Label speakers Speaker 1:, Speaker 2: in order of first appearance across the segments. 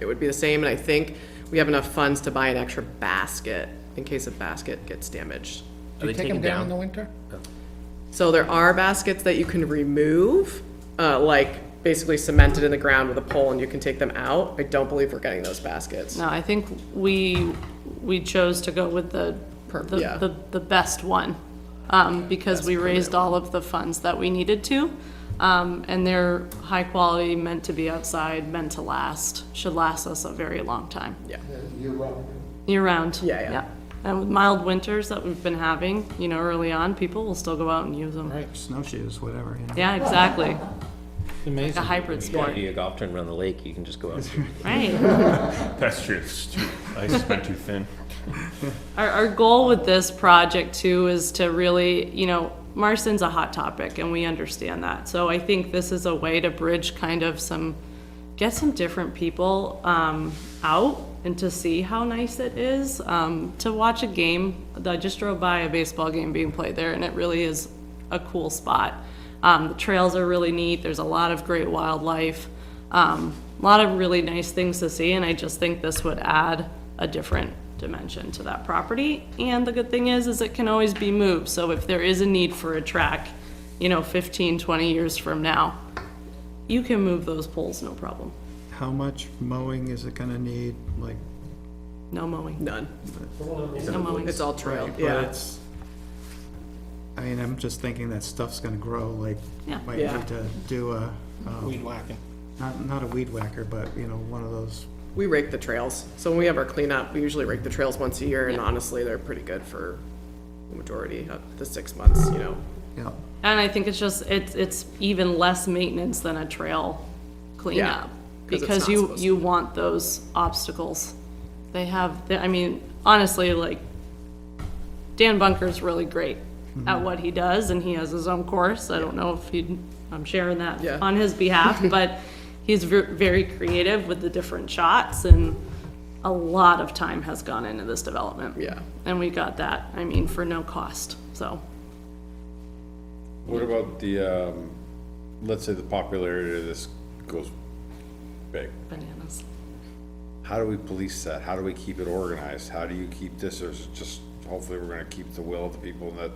Speaker 1: it would be the same, and I think we have enough funds to buy an extra basket in case a basket gets damaged.
Speaker 2: Do
Speaker 3: they
Speaker 2: you take
Speaker 3: taken
Speaker 2: them down in the
Speaker 3: down?
Speaker 2: winter?
Speaker 1: So there are baskets that you can remove, uh, like basically cemented in the ground with a pole and you can take them out. I don't believe we're getting those baskets.
Speaker 4: No, I think we, we chose to go with the,
Speaker 1: Per-
Speaker 4: the-
Speaker 1: yeah.
Speaker 4: the, the best one, um, because we raised all of the funds that we needed to. Um, and they're high quality, meant to be outside, meant to last, should last us a very long time,
Speaker 1: Yeah.
Speaker 4: year round.
Speaker 1: Yeah, yeah.
Speaker 4: And with mild winters that we've been having, you know, early on, people will still go out and use them.
Speaker 2: Right.
Speaker 3: Snowshoes, whatever, you know.
Speaker 4: Yeah, exactly, a
Speaker 2: Amazing.
Speaker 4: hybrid
Speaker 3: Want
Speaker 4: sport,
Speaker 3: to do a golf tournament on the lake, you can just go out.
Speaker 4: right?
Speaker 5: That's just too, ice has been too thin.
Speaker 4: Our, our goal with this project too is to really, you know, Marston's a hot topic and we understand that. So I think this is a way to bridge kind of some, get some different people, um, out and to see how nice it is, um, to watch a game. I just drove by a baseball game being played there and it really is a cool spot. Um, the trails are really neat. There's a lot of great wildlife. Um, a lot of really nice things to see, and I just think this would add a different dimension to that property. And the good thing is, is it can always be moved, so if there is a need for a track, you know, 15, 20 years from now, you can move those poles, no problem,
Speaker 6: How much mowing is it gonna need, like?
Speaker 4: no mowing,
Speaker 1: None.
Speaker 4: no mowing.
Speaker 1: It's all trail,
Speaker 6: but
Speaker 1: yeah.
Speaker 6: it's- I mean, I'm just thinking that stuff's gonna grow, like,
Speaker 4: Yeah.
Speaker 6: might
Speaker 1: Yeah.
Speaker 6: need to do a, um,
Speaker 2: Weed whacking.
Speaker 6: not, not a weed whacker, but, you know, one of those,
Speaker 1: We rake the trails. So when we have our cleanup, we usually rake the trails once a year and honestly, they're pretty good for the majority of the six months, you know.
Speaker 6: you know,
Speaker 4: And I think it's just, it's, it's even less maintenance than a trail cleanup.
Speaker 1: 'cause it's
Speaker 4: Because
Speaker 1: not
Speaker 4: you,
Speaker 1: supposed to
Speaker 4: you want those obstacles. They have, I mean, honestly, like, Dan Bunker's really great
Speaker 1: Mm-hmm.
Speaker 4: at what he does, and he has his own course. I don't know if he, I'm sharing that
Speaker 1: Yeah.
Speaker 4: on his behalf, but he's ver- very creative with the different shots, and a lot of time has gone into this development.
Speaker 1: Yeah.
Speaker 4: And we got that, I mean, for no cost, so.
Speaker 7: What about the, um, let's say the popularity of this goes big.
Speaker 4: Bananas.
Speaker 7: How do we police that? How do we keep it organized? How do you keep this, or is it just, hopefully we're gonna keep the will of the people and that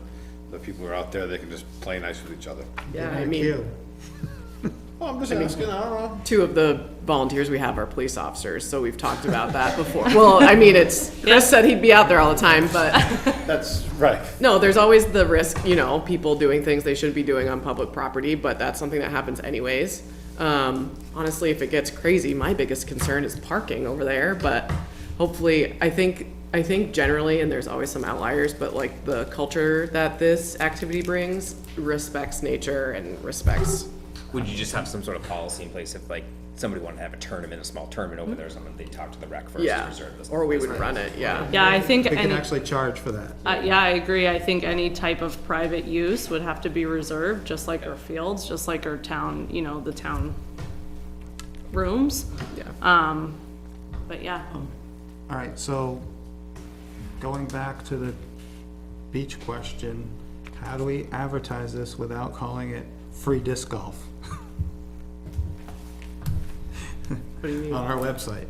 Speaker 7: the people who are out there, they can just play nice with each other?
Speaker 1: Yeah, I
Speaker 6: like
Speaker 1: mean,
Speaker 6: you.
Speaker 7: Well, I'm just asking, I don't know.
Speaker 1: two of the volunteers we have are police officers, so we've talked about that before. Well, I mean, it's, Chris said he'd be out there all the time, but
Speaker 7: That's right.
Speaker 1: No, there's always the risk, you know, people doing things they shouldn't be doing on public property, but that's something that happens anyways. Um, honestly, if it gets crazy, my biggest concern is parking over there, but hopefully, I think, I think generally, and there's always some outliers, but like the culture that this activity brings respects nature and respects,
Speaker 3: Would you just have some sort of policy in place if like somebody wanted to have a tournament, a small tournament
Speaker 4: Hmm?
Speaker 3: over there or something, they talk to the rec first to
Speaker 1: yeah.
Speaker 3: reserve this?
Speaker 1: Or we would run it, yeah.
Speaker 4: Yeah, I think
Speaker 6: We can
Speaker 4: any,
Speaker 6: actually charge for that.
Speaker 4: uh, yeah, I agree. I think any type of private use would have to be reserved, just like our fields, just like our town, you know, the town rooms.
Speaker 1: Yeah.
Speaker 4: Um, but yeah,
Speaker 6: All right, so going back to the beach question, how do we advertise this without calling it free disc golf? On our website.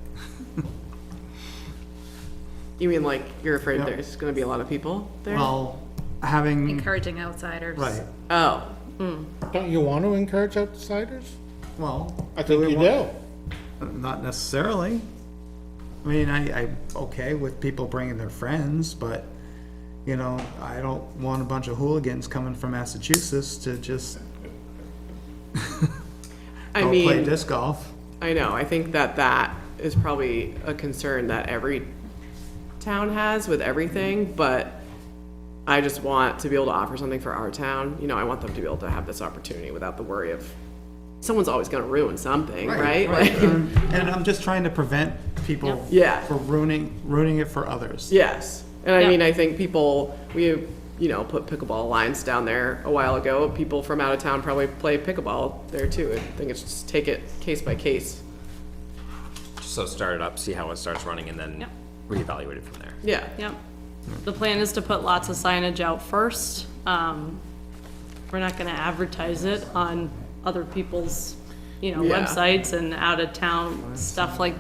Speaker 1: You mean like, you're afraid
Speaker 6: Yeah.
Speaker 1: there's gonna be a lot of people there?
Speaker 6: Well, having,
Speaker 8: encouraging outsiders.
Speaker 6: right,
Speaker 1: Oh,
Speaker 2: Don't you want to encourage outsiders?
Speaker 6: well.
Speaker 2: I think
Speaker 6: we
Speaker 2: you
Speaker 6: want-
Speaker 2: do.
Speaker 6: Not necessarily. I mean, I, I'm okay with people bringing their friends, but, you know, I don't want a bunch of hooligans coming from Massachusetts to just
Speaker 1: I
Speaker 6: go
Speaker 1: mean.
Speaker 6: play disc golf.
Speaker 1: I know, I think that that is probably a concern that every town has with everything, but I just want to be able to offer something for our town. You know, I want them to be able to have this opportunity without the worry of, someone's always gonna ruin something, right? Like,
Speaker 6: Um, And I'm just trying to prevent people.
Speaker 1: Yeah.
Speaker 6: For ruining, ruining it for others.
Speaker 1: Yes, and I
Speaker 4: Yeah.
Speaker 1: mean, I think people, we, you know, put pickleball lines down there a while ago. People from out of town probably play pickleball there too. I think it's just take it case by case.
Speaker 3: So start it up, see how it starts running and then
Speaker 4: Yep.
Speaker 3: reevaluate it from there.
Speaker 1: Yeah,
Speaker 4: yep. The plan is to put lots of signage out first. Um, we're not gonna advertise it on other people's, you know,
Speaker 1: Yeah.
Speaker 4: websites and out of town stuff like